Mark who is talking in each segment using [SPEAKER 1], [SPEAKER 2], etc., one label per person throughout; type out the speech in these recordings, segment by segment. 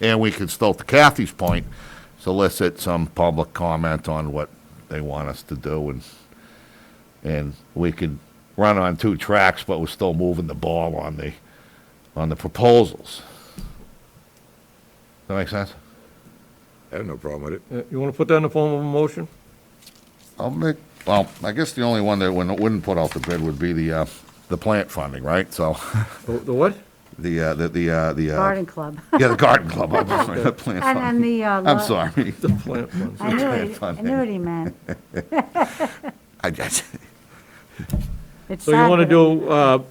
[SPEAKER 1] And we can still, to Kathy's point, solicit some public comment on what they want us to do and, and we could run on two tracks, but we're still moving the ball on the, on the proposals. That make sense?
[SPEAKER 2] I have no problem with it.
[SPEAKER 3] Uh, You want to put that in the form of a motion?
[SPEAKER 1] I'll make, well, I guess the only one that wouldn't, wouldn't put out the bid would be the, uh, the plant funding, right? So,
[SPEAKER 3] The the what?
[SPEAKER 1] the, uh, the, the, uh, the, uh,
[SPEAKER 4] Garden Club.
[SPEAKER 1] Yeah, the garden club, I'm sorry, the plant
[SPEAKER 4] And then
[SPEAKER 1] funding.
[SPEAKER 4] the, uh,
[SPEAKER 1] I'm
[SPEAKER 4] lo-
[SPEAKER 1] sorry.
[SPEAKER 3] The plant funds.
[SPEAKER 4] I knew
[SPEAKER 1] Plant
[SPEAKER 4] it, I
[SPEAKER 1] funding.
[SPEAKER 4] knew what he meant.
[SPEAKER 1] I just-
[SPEAKER 4] It's
[SPEAKER 3] So you want to
[SPEAKER 4] Saturday.
[SPEAKER 3] do uh,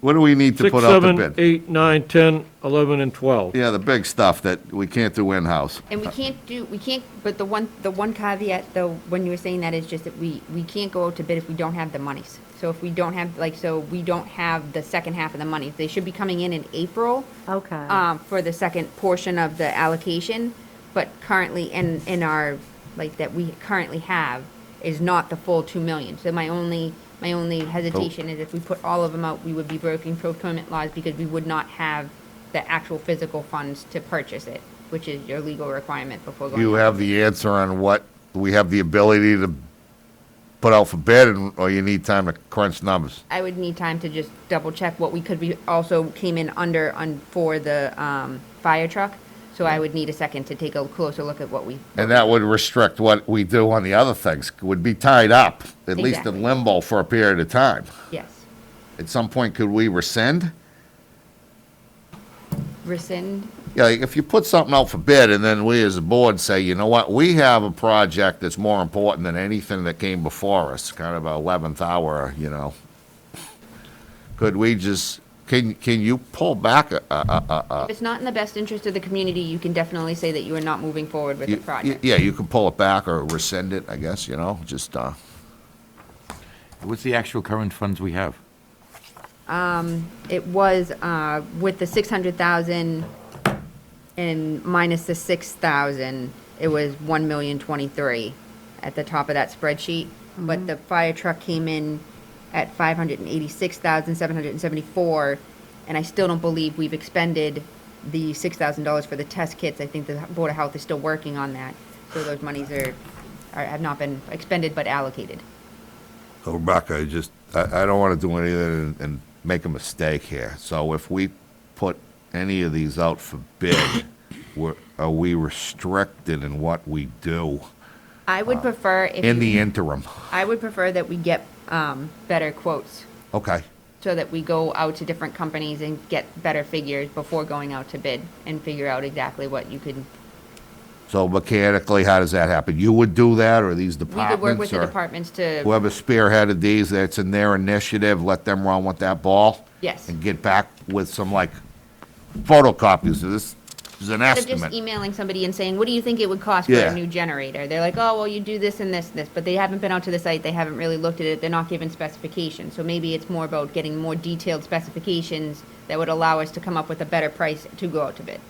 [SPEAKER 1] What do we need to
[SPEAKER 3] six,
[SPEAKER 1] put out the
[SPEAKER 3] seven,
[SPEAKER 1] bid?
[SPEAKER 3] eight, nine, 10, 11, and 12?
[SPEAKER 1] Yeah, the big stuff that we can't do in-house.
[SPEAKER 5] And we can't do, we can't, but the one, the one caveat, though, when you were saying that is just that we, we can't go out to bid if we don't have the monies. So if we don't have, like, so we don't have the second half of the money. They should be coming in in April.
[SPEAKER 4] Okay.
[SPEAKER 3] Uh,
[SPEAKER 5] Um, for the second portion of the allocation, but currently in, in our, like, that we currently have is not the full two million. So my only, my only hesitation is if we put all of them out, we would be breaking procurement laws because we would not have the actual physical funds to purchase it, which is your legal requirement before going.
[SPEAKER 1] You
[SPEAKER 5] out.
[SPEAKER 1] have the answer on what, we have the ability to put out for bid, and- or you need time to crunch numbers?
[SPEAKER 5] I would need time to just double check what we could be, also came in under on, for the, um, fire truck. So I would need a second to take a closer look at what we
[SPEAKER 1] And that would restrict what we do on the other things, would be tied up, at least in
[SPEAKER 5] Exactly.
[SPEAKER 1] limbo for a period of time.
[SPEAKER 5] Yes.
[SPEAKER 1] At some point, could we rescind?
[SPEAKER 5] Rescind?
[SPEAKER 1] Yeah, like, if you put something out for bid and then we as a board say, you know what, we have a project that's more important than anything that came before us, kind of a eleventh hour, you know. Could we just, can, can you pull back a, a,
[SPEAKER 5] If it's not in the best interest of the community, you can definitely say that you are not moving forward with the
[SPEAKER 1] you- you-
[SPEAKER 5] project.
[SPEAKER 1] yeah, you can pull it back or rescind it, I guess, you know, just, uh,
[SPEAKER 6] What's the actual current funds we have?
[SPEAKER 5] It was, uh, with the six hundred thousand and minus the six thousand, it was one million twenty-three at the top of that spreadsheet. But the fire truck came in at five hundred and eighty-six thousand, seven hundred and seventy-four, and I still don't believe we've expended the six thousand dollars for the test kits. I think the Board of Health is still working on that. So those monies are, are, have not been expended but allocated.
[SPEAKER 1] So Rebecca, I just, I, I don't want to do anything and, and make a mistake here. So if we put any of these out for bid, we're, are we restricted in what we do
[SPEAKER 5] I would prefer if
[SPEAKER 1] Uh, in the
[SPEAKER 5] you-
[SPEAKER 1] interim?
[SPEAKER 5] I would prefer that we get um, better quotes
[SPEAKER 1] Okay,
[SPEAKER 5] so that we go out to different companies and get better figures before going out to bid and figure out exactly what you could.
[SPEAKER 1] so mechanically, how does that happen? You would do that, or these
[SPEAKER 5] We could
[SPEAKER 1] departments?
[SPEAKER 5] work with the
[SPEAKER 1] or
[SPEAKER 5] departments to,
[SPEAKER 1] Whoever spearheaded these, that's in their initiative, let them run with that ball?
[SPEAKER 5] Yes.
[SPEAKER 1] And get back with some like photocopies of this, this is an
[SPEAKER 5] instead of
[SPEAKER 1] estimate.
[SPEAKER 5] just emailing somebody and saying, what do you think it would cost for
[SPEAKER 1] Yeah.
[SPEAKER 5] a new generator? They're like, oh, well, you do this and this and this, but they haven't been out to the site, they haven't really looked at it, they're not given specifications. So maybe it's more about getting more detailed specifications that would allow us to come up with a better price to go out to bid.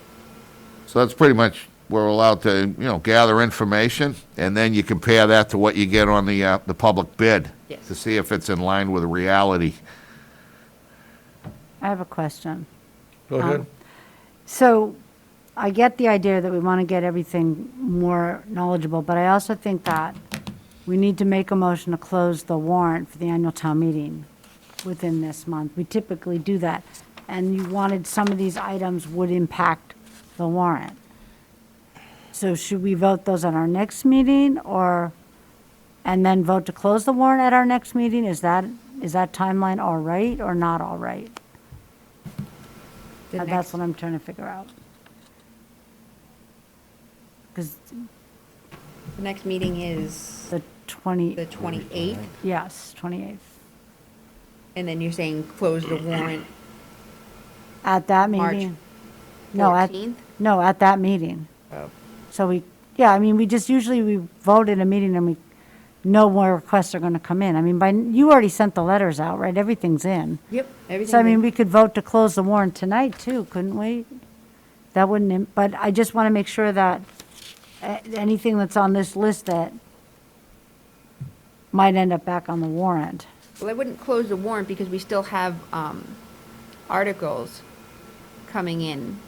[SPEAKER 1] So that's pretty much, we're allowed to, you know, gather information, and then you compare that to what you get on the, uh, the public bid.
[SPEAKER 5] Yes.
[SPEAKER 1] To see if it's in line with reality.
[SPEAKER 4] I have a question.
[SPEAKER 3] Go ahead.
[SPEAKER 4] So I get the idea that we want to get everything more knowledgeable, but I also think that we need to make a motion to close the warrant for the annual town meeting within this month. We typically do that. And you wanted some of these items would impact the warrant. So should we vote those at our next meeting or, and then vote to close the warrant at our next meeting? Is that, is that timeline all right or not all right?
[SPEAKER 5] The
[SPEAKER 4] Uh,
[SPEAKER 5] next-
[SPEAKER 4] That's what I'm trying to figure out. Because
[SPEAKER 5] The next meeting is
[SPEAKER 4] the
[SPEAKER 5] the
[SPEAKER 4] 20,
[SPEAKER 5] 28th,
[SPEAKER 4] yes, 28th.
[SPEAKER 5] and then you're saying close the warrant
[SPEAKER 4] At that
[SPEAKER 5] March
[SPEAKER 4] meeting? No, at,
[SPEAKER 5] 14th?
[SPEAKER 4] no, at that meeting. So we, yeah, I mean, we just usually, we vote in a meeting and we know more requests are going to come in. I mean, by, you already sent the letters out, right? Everything's in.
[SPEAKER 5] Yep, everything.
[SPEAKER 4] So I mean, we could vote to close the warrant tonight too, couldn't we? That wouldn't, im- but I just want to make sure that uh, anything that's on this list that might end up back on the warrant.
[SPEAKER 5] Well, I wouldn't close the warrant because we still have um, articles coming in